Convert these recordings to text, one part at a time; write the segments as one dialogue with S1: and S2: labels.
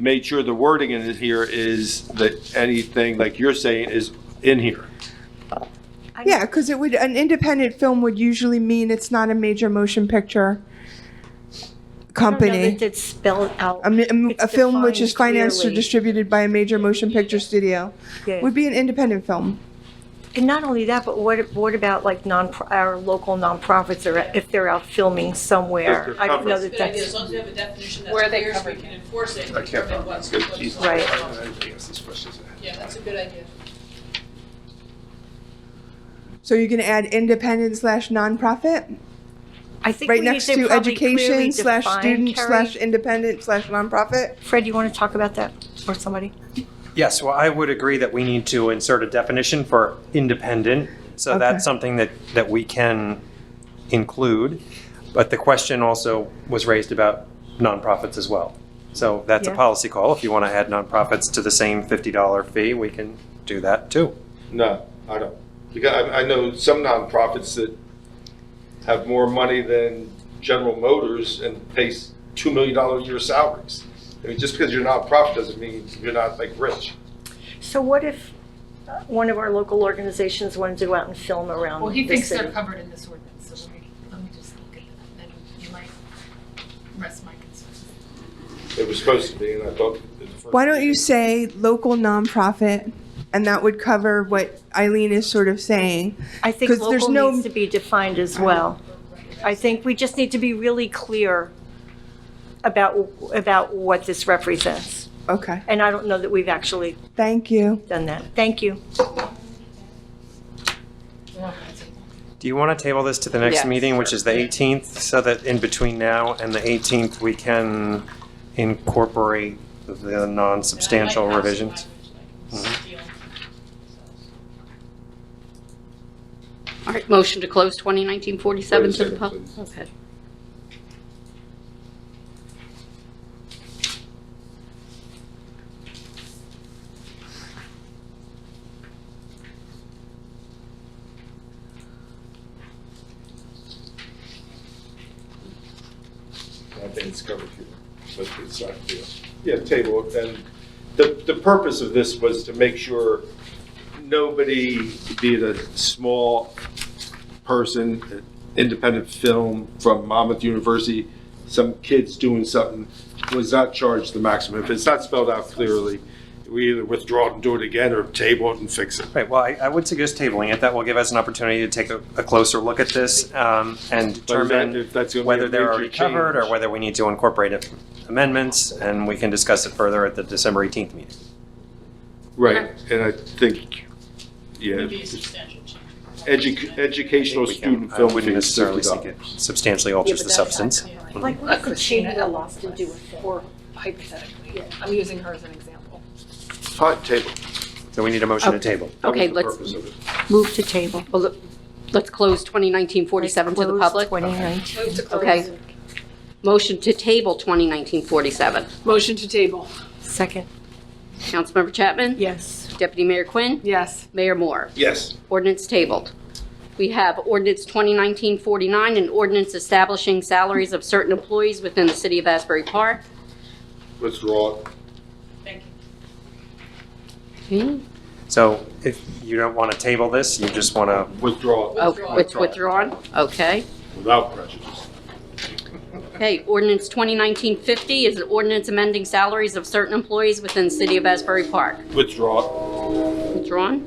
S1: made sure the wording in here is that anything like you're saying is in here.
S2: Yeah, because it would, an independent film would usually mean it's not a major motion picture
S3: I don't know
S2: company.
S3: that it's spelled out.
S2: A, mi- a m-
S3: It's
S2: a film which is
S3: defined
S2: financed or
S3: clearly.
S2: distributed by a major motion picture studio
S3: Yeah.
S2: would be an independent film.
S3: And not only that, but what, what about like non, our local nonprofits are, if they're out filming somewhere?
S1: If they're
S3: I don't know
S1: covered.
S3: that
S4: Good idea, as
S3: that's,
S4: long as we have a definition that's
S5: Where they
S4: clear, so we
S5: covered
S4: can
S5: it.
S4: enforce it,
S1: I
S4: and
S1: can't
S4: determine
S1: find
S4: what's.
S1: it.
S4: what's-
S3: Right.
S4: Yeah, that's a good idea.
S2: So you're going to add independent slash nonprofit
S3: I think we
S2: right
S3: need
S2: next
S3: to
S2: to
S3: probably clearly
S2: education slash
S3: define,
S2: student slash
S3: Carrie.
S2: independent slash nonprofit.
S3: Fred, you want to talk about that or somebody?
S6: Yes, well, I would agree that we need to insert a definition for independent. So
S2: Okay.
S6: that's something that, that we can include. But the question also was raised about nonprofits as well. So that's a
S3: Yeah.
S6: policy call. If you want to add nonprofits to the same $50 fee, we can do that too.
S1: No, I don't. Because I, I know some nonprofits that have more money than General Motors and pays two million dollar a year salaries. I mean, just because you're nonprofit doesn't mean you're not like rich.
S3: So what if uh, one of our local organizations wanted to go out and film around
S5: Well, he
S3: the
S5: thinks they're
S3: city?
S5: covered in this ordinance, so let me, let me just look at that, and you might rest my concerns.
S1: It was supposed to be, and I thought. at first-
S2: Why don't you say local nonprofit? And that would cover what Eileen is sort of saying.
S3: I think
S2: 'Cause there's
S3: local
S2: no-
S3: needs to be defined as well. I think we just need to be really clear about, about what this represents.
S2: Okay,
S3: And I don't know that we've actually
S2: thank you.
S3: done that. Thank you.
S6: Do you want to table this to the next
S5: Yes.
S6: meeting, which is the 18th, so that in between now and the 18th, we can incorporate the non-substantial revisions?
S7: All right, motion to close 2019-47 to the public.
S1: Wait a second,
S7: Okay.
S1: I think it's covered here, but it's not here. Yeah, table, it. and the, the purpose of this was to make sure nobody, be it a small person, independent film from Monmouth University, some kids doing something, was not charged the maximum. If it's not spelled out clearly, we either withdraw it and do it again, or table it and fix it.
S6: Right, well, I, I would suggest tabling it. That will give us an opportunity to take a, a closer look at this um, and
S1: But is that-
S6: determine
S1: if that's gonna be a
S6: whether they're
S1: major
S6: already covered
S1: change.
S6: or whether we need to incorporate amendments, and we can discuss it further at the December 18th meeting.
S1: Right, and I think, yeah,
S4: It'd be a substantial change.
S1: edu- educational
S6: We can-
S1: student film
S6: I wouldn't
S1: fees,
S6: necessarily think
S1: $50.
S6: it substantially alters the substance.
S3: Like, what
S5: Uh,
S3: if the
S5: Christina
S3: change
S5: at
S3: of
S5: law
S3: laws to do with that?
S5: Or hypothetically, I'm using her as an example.
S1: Fine, table.
S6: So we need a motion to table.
S1: That was
S7: Okay,
S1: the
S7: let's-
S1: purpose of it.
S3: Move to table.
S7: Well, look, let's close 2019-47 to the public.
S3: Close 2019.
S5: Move to
S7: Okay. Motion to table 2019-47.
S5: Motion to table.
S3: Second.
S7: Councilmember Chapman?
S3: Yes.
S7: Deputy Mayor Quinn?
S5: Yes.
S7: Mayor Moore?
S1: Yes,
S7: Ordinance tabled. We have ordinance 2019-49, an ordinance establishing salaries of certain employees within the city of Asbury Park.
S1: withdraw it.
S4: Thank you.
S7: Okay.
S6: So if you don't want to table this, you just want to,
S1: Withdraw it
S7: Oh,
S4: Withdrawn.
S7: it's withdrawn? Okay.
S1: without prejudice.
S7: Okay, ordinance 2019-50 is an ordinance amending salaries of certain employees within the city of Asbury Park.
S1: Withdraw
S7: Withdrawn?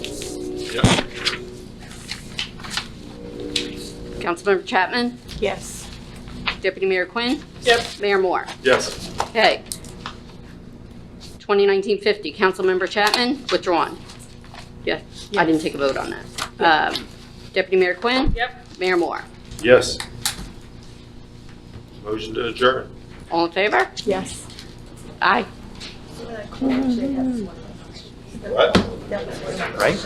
S1: it. Yep.
S7: Councilmember Chapman?
S3: Yes.
S7: Deputy Mayor Quinn?
S4: Yep.
S7: Mayor Moore?
S1: Yes.
S7: Okay. 2019-50, Councilmember Chapman, withdrawn. Yeah, I didn't take a vote on that. Um, Deputy Mayor Quinn?
S4: Yep.
S7: Mayor Moore?
S1: Yes. Motion to adjourn.
S7: All in favor?
S3: Yes.
S7: Aye.
S1: What?
S6: right?